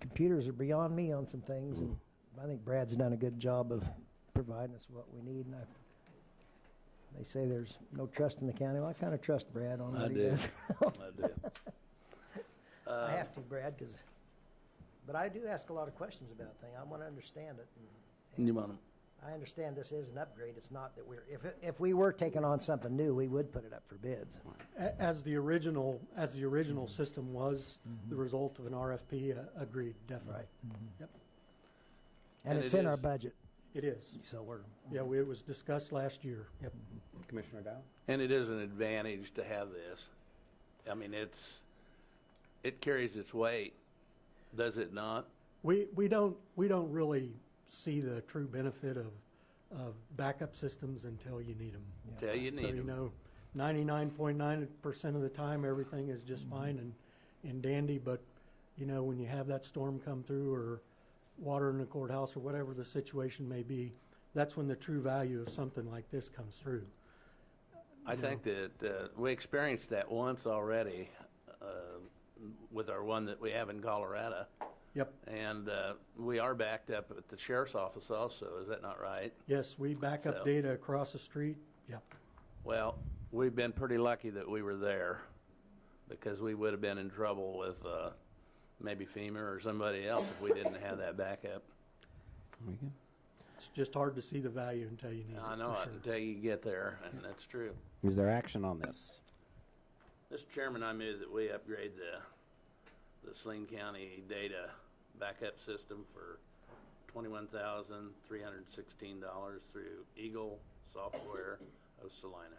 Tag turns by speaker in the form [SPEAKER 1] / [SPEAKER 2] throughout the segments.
[SPEAKER 1] computers are beyond me on some things, and
[SPEAKER 2] Hmm.
[SPEAKER 1] I think Brad's done a good job of providing us what we need, and I, they say there's no trust in the county, well, I kinda trust Brad on
[SPEAKER 2] I
[SPEAKER 1] what he
[SPEAKER 2] do. Uh,
[SPEAKER 1] does.
[SPEAKER 2] I do.
[SPEAKER 1] I have to, Brad, 'cause- but I do ask a lot of questions about things, I wanna understand it, and
[SPEAKER 2] You want
[SPEAKER 1] I understand this is an upgrade, it's not that we're, if, it- if we were taking on something new, we would put it up for bids.
[SPEAKER 3] A- As the original, as the original system was, the result of an RFP, uh, agreed, definitely. Yep,
[SPEAKER 1] And
[SPEAKER 2] And
[SPEAKER 1] it's
[SPEAKER 2] it
[SPEAKER 1] in our
[SPEAKER 2] is-
[SPEAKER 1] budget,
[SPEAKER 3] it is.
[SPEAKER 1] so we're,
[SPEAKER 3] Yeah, we- it was discussed last year. Yep.
[SPEAKER 4] Commissioner Dow?
[SPEAKER 2] And it is an advantage to have this. I mean, it's, it carries its weight, does it not?
[SPEAKER 3] We, we don't, we don't really see the true benefit of, of backup systems until you need them.
[SPEAKER 2] Till you need
[SPEAKER 3] So, you
[SPEAKER 2] 'em.
[SPEAKER 3] know, ninety-nine point nine percent of the time, everything is just
[SPEAKER 2] Mm-hmm.
[SPEAKER 3] fine and, and dandy, but, you know, when you have that storm come through or water in the courthouse or whatever the situation may be, that's when the true value of something like this comes through.
[SPEAKER 2] I think that uh, we experienced that once already uh, with our one that we have in Colorado.
[SPEAKER 3] Yep,
[SPEAKER 2] And uh, we are backed up at the sheriff's office also, is that not right?
[SPEAKER 3] yes, we back
[SPEAKER 2] So-
[SPEAKER 3] up data across the street, yep.
[SPEAKER 2] Well, we've been pretty lucky that we were there because we would have been in trouble with uh, maybe FEMA or somebody else if we didn't have that backup.
[SPEAKER 3] It's just hard to see the value until you need it,
[SPEAKER 2] I know
[SPEAKER 3] for
[SPEAKER 2] it
[SPEAKER 3] sure.
[SPEAKER 2] until you get there, and that's true.
[SPEAKER 4] Is there action on this?
[SPEAKER 2] Mr. Chairman, I move that we upgrade the, the Saline County data backup system for twenty-one thousand, three hundred and sixteen dollars through Eagle Software of Salina.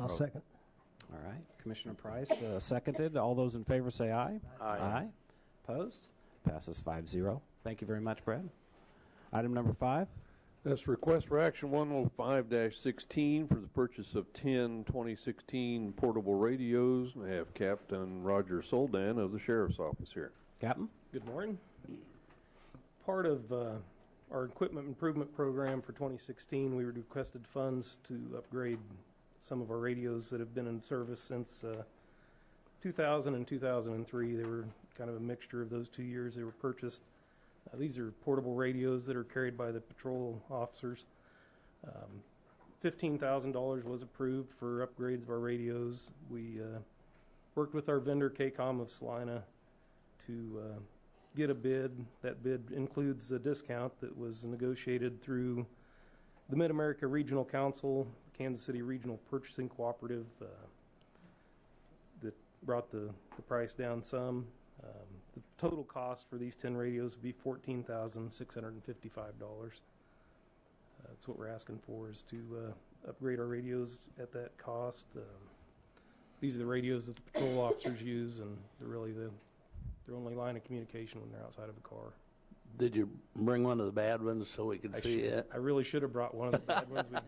[SPEAKER 1] I'll second.
[SPEAKER 4] All right. Commissioner Price uh, seconded. All those in favor say aye.
[SPEAKER 2] Aye.
[SPEAKER 4] Opposed? Passes 5 0. Thank you very much, Brad. Item number five.
[SPEAKER 5] That's request for action 105-16 for the purchase of 10 2016 portable radios. I have Captain Roger Soldan of the Sheriff's Office here.
[SPEAKER 4] Captain?
[SPEAKER 6] Good morning. Part of uh, our equipment improvement program for 2016, we requested funds to upgrade some of our radios that have been in service since uh, 2000 and 2003. They were kind of a mixture of those two years they were purchased. Uh, These are portable radios that are carried by the patrol officers. Um, $15,000 was approved for upgrades of our radios. We uh, worked with our vendor, KCOM of Salina, to uh, get a bid. That bid includes a discount that was negotiated through the Mid America Regional Council, Kansas City Regional Purchasing Cooperative, uh, that brought the, the price down some. Um, the total cost for these 10 radios would be $14,655. Uh, that's what we're asking for is to uh, upgrade our radios at that cost. Um, these are the radios that the patrol officers use, and they're really the their only line of communication when they're outside of a car.
[SPEAKER 2] Did you bring one of the bad ones so we could
[SPEAKER 6] I,
[SPEAKER 2] see
[SPEAKER 6] should-
[SPEAKER 2] it?
[SPEAKER 6] I really should have brought one of the bad ones. We,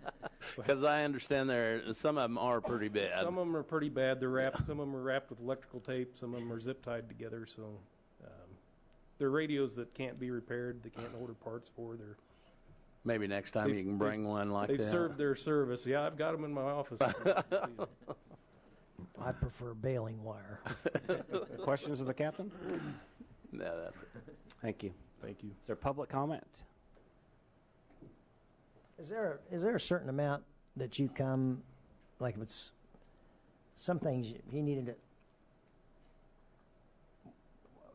[SPEAKER 2] Because I understand there, some of them are pretty bad.
[SPEAKER 6] some of them are pretty bad. They're wrapped. Some of them are wrapped with electrical tape. Some of them are zip tied together. So um, they're radios that can't be repaired. They can't order parts for. They're
[SPEAKER 2] Maybe next time you
[SPEAKER 6] They've-
[SPEAKER 2] can bring
[SPEAKER 6] they've-
[SPEAKER 2] one like
[SPEAKER 6] they've served
[SPEAKER 2] that.
[SPEAKER 6] their service. Yeah, I've got them in my office. You can see 'em.
[SPEAKER 1] I prefer baling wire.
[SPEAKER 4] Questions of the captain?
[SPEAKER 2] No, that's it.
[SPEAKER 4] Thank you.
[SPEAKER 6] Thank you.
[SPEAKER 4] Is there public comment?
[SPEAKER 1] Is there is there a certain amount that you come, like if it's some things you you needed to?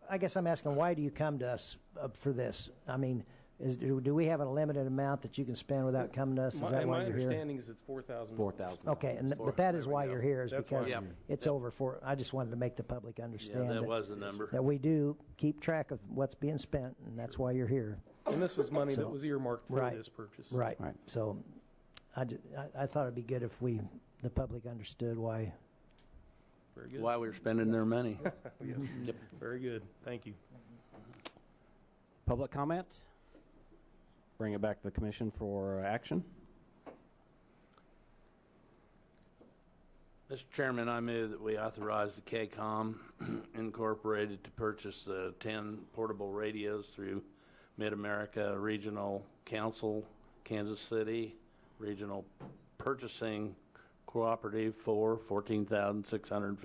[SPEAKER 1] I guess I'm asking why do you come to us up for this? I mean, is do do we have a limited amount that you can spend without coming to us? Is
[SPEAKER 6] My,
[SPEAKER 1] that why
[SPEAKER 6] my
[SPEAKER 1] you're here?
[SPEAKER 6] understanding is it's four thousand.
[SPEAKER 4] 4000
[SPEAKER 1] Okay, and th-
[SPEAKER 2] Four.
[SPEAKER 1] but that is
[SPEAKER 2] There we
[SPEAKER 1] why
[SPEAKER 2] go.
[SPEAKER 1] you're here is
[SPEAKER 6] That's why
[SPEAKER 1] because
[SPEAKER 2] I'm here.
[SPEAKER 1] it's over for. I just wanted to make the public
[SPEAKER 2] Yeah,
[SPEAKER 1] understand
[SPEAKER 2] that
[SPEAKER 1] that,
[SPEAKER 2] was the number.
[SPEAKER 1] that we do keep track of what's being spent, and that's why you're here.
[SPEAKER 6] And this was money
[SPEAKER 1] So-
[SPEAKER 6] that was earmarked for
[SPEAKER 1] Right.
[SPEAKER 6] this purchase.
[SPEAKER 1] Right.
[SPEAKER 4] Right.
[SPEAKER 1] So I, ju- I, I thought it'd be good if we, the public understood why.
[SPEAKER 6] Very good.
[SPEAKER 2] Why we're spending their money.
[SPEAKER 6] Yes.
[SPEAKER 2] Yep.
[SPEAKER 6] Very good. Thank you.
[SPEAKER 4] Public comment? Bring it back to the commission for uh, action.
[SPEAKER 2] Mr. Chairman, I move that we authorize the KCOM Incorporated to purchase the 10 portable radios through Mid-America Regional Council, Kansas City Regional Purchasing Cooperative for $14,650.